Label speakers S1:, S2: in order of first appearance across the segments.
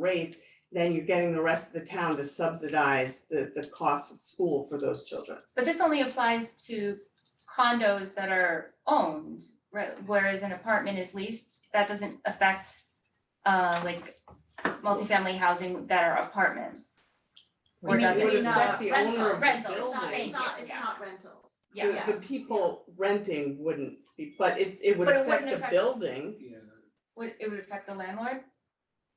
S1: rates, then you're getting the rest of the town to subsidize the, the cost of school for those children.
S2: But this only applies to condos that are owned, right, whereas an apartment is leased, that doesn't affect uh like multifamily housing that are apartments. Or
S1: It
S2: does it?
S1: would
S2: Maybe
S1: affect
S2: not
S1: the owner of the
S2: rental,
S3: It's not, it's
S1: building.
S3: not, it's
S2: Yeah.
S3: not rentals.
S2: Yeah.
S1: The, the people renting wouldn't be, but it, it would
S2: But it
S1: affect
S2: wouldn't
S1: the
S2: affect-
S1: building.
S4: Yeah,
S2: Would it would affect the landlord?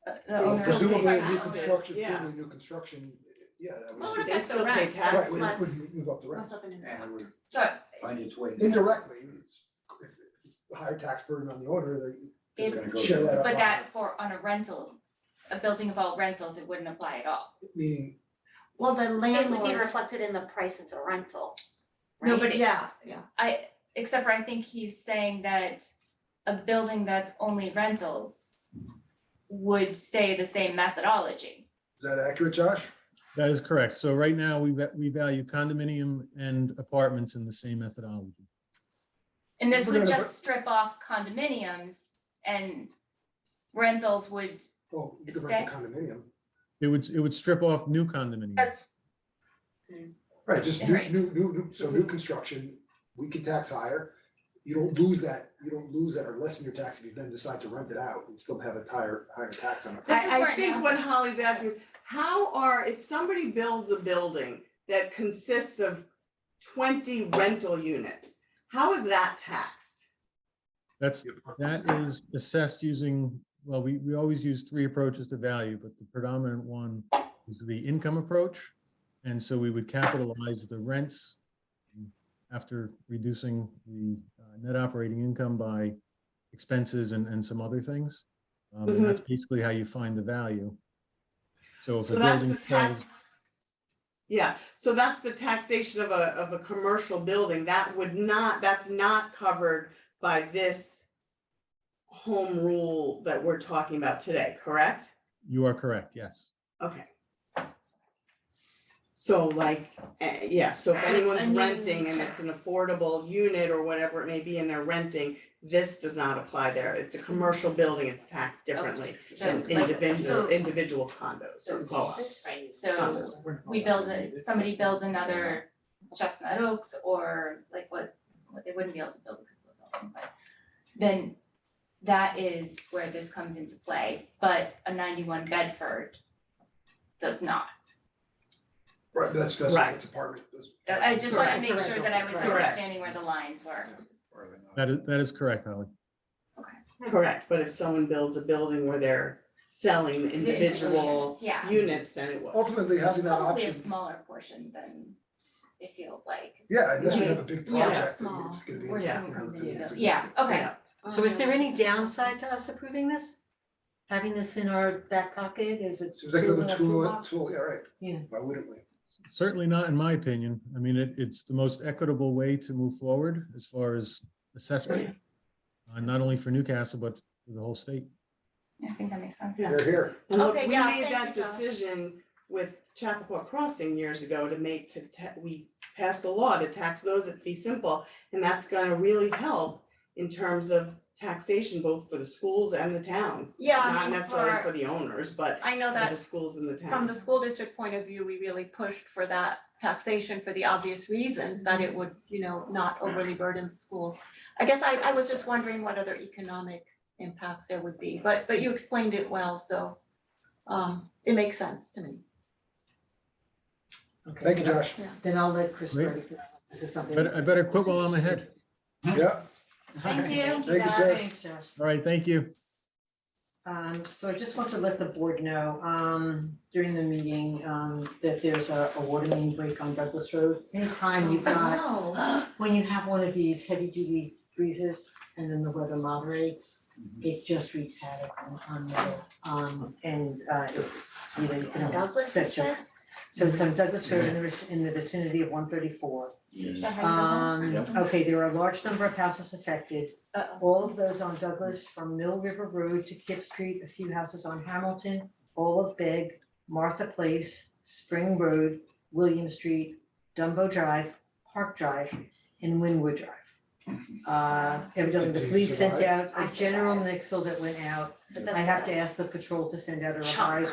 S2: Uh, The
S1: They
S2: owner of
S1: still
S2: the
S4: presumably
S1: pay
S4: new
S2: apartment.
S1: taxes,
S4: construction,
S1: yeah.
S4: totally new construction, yeah, that
S3: Well,
S4: was.
S3: it
S1: They
S3: affects
S1: still
S3: the
S1: pay
S3: rent, so
S1: taxes.
S4: Right,
S3: it's less,
S4: it would move up the rent,
S3: less of an impact.
S4: and it would
S2: So
S4: find
S5: its way.
S4: indirectly, it's, if it's a higher tax burden on the owner,
S2: if
S4: they're share that up.
S2: But that for on a rental, a building of all rentals, it wouldn't apply at all.
S4: Meaning,
S3: Well, the
S6: It would be
S3: landlord,
S6: reflected in the price of the rental,
S2: No,
S6: right?
S2: but it-
S3: yeah, yeah,
S2: I, except for I think he's saying that a building that's only rentals would stay the same methodology.
S4: is that accurate, Josh?
S7: That is correct. So right now, we, va- we value condominium and apartments in the same methodology.
S2: And this would
S4: Forget
S2: just strip off condominiums and rentals would,
S4: Well, you could rent a
S2: Stay.
S4: condominium,
S7: It would, it would strip off new condominiums.
S2: that's,
S4: right, just new,
S2: Right.
S4: new, new, new, so new construction, we can tax higher. You don't lose that, you don't lose that or lessen your tax if you then decide to rent it out and still have a higher, higher tax on it.
S2: This is
S1: I,
S2: where
S1: I
S2: it
S1: think what
S2: happens.
S1: Holly's asking is, how are, if somebody builds a building that consists of twenty rental units, how is that taxed?
S7: That's, that is assessed using, well, we, we always use three approaches to value, but the predominant one is the income approach. And so we would capitalize the rents after reducing the uh, net operating income by expenses and, and some other things. Um,
S1: Mm-hmm.
S7: and that's basically how you find the value. So if
S1: So
S7: a
S1: that's
S7: building
S1: the
S7: sells.
S1: tax. Yeah, so that's the taxation of a, of a commercial building, that would not, that's not covered by this home rule that we're talking about today, correct?
S7: You are correct, yes.
S1: Okay. So like, eh, yeah, so if anyone's
S3: I mean-
S1: renting and it's an affordable unit or whatever it may be and they're renting, this does not apply there. It's a commercial building, it's taxed differently
S2: so
S1: than
S2: like-
S1: individual,
S2: so-
S1: individual condos or co-ops.
S2: so we build a, somebody builds another Chestnut Oaks or like what, what they wouldn't be able to build a couple of them, but then that is where this comes into play, but a ninety-one Bedford does not.
S4: Right, but that's, that's,
S1: Right.
S4: that's apartment, that's.
S2: That- I just wanted to
S1: Correct.
S2: make sure that I was
S1: Correct.
S2: understanding where the lines were.
S7: That is, that is correct, Holly.
S1: Correct, but if someone builds a building where they're selling the
S2: The
S1: individual
S2: units, Yeah.
S1: units, then it would.
S4: Ultimately,
S2: It's
S4: having that
S2: probably a
S4: option
S2: smaller portion than it feels like,
S4: Yeah, unless we
S2: Yeah.
S4: have a big
S3: Yeah,
S4: project,
S3: small.
S4: it's gonna be.
S2: where
S1: Yeah.
S2: someone comes
S4: it's
S2: in
S4: gonna be
S2: to build,
S4: significant.
S2: yeah, okay.
S1: Yeah.
S8: So is there any downside to us approving this? Having this in our back pocket, is it?
S4: Seems like another
S8: in our
S4: tool,
S8: toolbox?
S4: tool, yeah, right.
S8: Yeah.
S4: Why wouldn't we?
S7: Certainly not in my opinion. I mean, it, it's the most equitable way to move forward as far as assessment. Uh, not only for Newcastle, but for the whole state.
S2: I think that makes sense.
S1: Yeah.
S4: They're here.
S1: And look,
S3: Okay,
S1: we
S3: yeah,
S1: made
S3: thank
S1: that
S3: you, John.
S1: decision with Chappaqua Crossing years ago to make to, ta- we passed a law to tax those at fee simple. And that's gonna really help in terms of taxation, both for the schools and the town.
S3: yeah, I
S1: Not
S3: mean,
S1: necessarily for
S3: for,
S1: the owners, but
S3: I know
S1: for the
S3: that
S1: schools and the town.
S3: from the school district point of view, we really pushed for that taxation for the obvious reasons that it would, you know, not overly burden the schools. I guess I, I was just wondering what other economic impacts there would be, but, but you explained it well, so, um, it makes sense to me.
S8: Okay,
S4: Thank you, Josh.
S8: Then I'll let Chris
S7: Great.
S8: know if this is something.
S7: Better- I better quit while I'm ahead.
S4: Yeah,
S2: Thank you.
S4: Thank you, sir.
S8: Thanks, Josh.
S7: All right, thank you.
S8: Um, so I just want to let the board know, um, during the meeting, um, that there's a, a water main break on Douglas Road. Anytime you've got, when you have one of these heavy duty breezes and then the weather moderates, it just wreaks havoc on, on, the- um, and, uh, it's, you know, you can almost
S6: Douglas, you
S8: set your-
S6: said?
S8: So it's on Douglas Road in the, vic- in the vicinity of one thirty-four.
S2: Is that how you go home?
S8: Um, okay, there are a large number of houses affected.
S2: Uh-oh.
S8: All of those on Douglas from Mill River Road to Kip Street, a few houses on Hamilton, all of Beg, Martha Place, Spring Road, William Street, Dumbo Drive, Park Drive, and Winwood Drive. Uh, evidently, the
S4: Did you
S8: police sent out
S6: I
S8: a general
S6: survived.
S8: nixel that went out.
S2: But
S8: I
S2: that's-
S8: have to ask the patrol to send out a
S6: Chunk.
S8: revised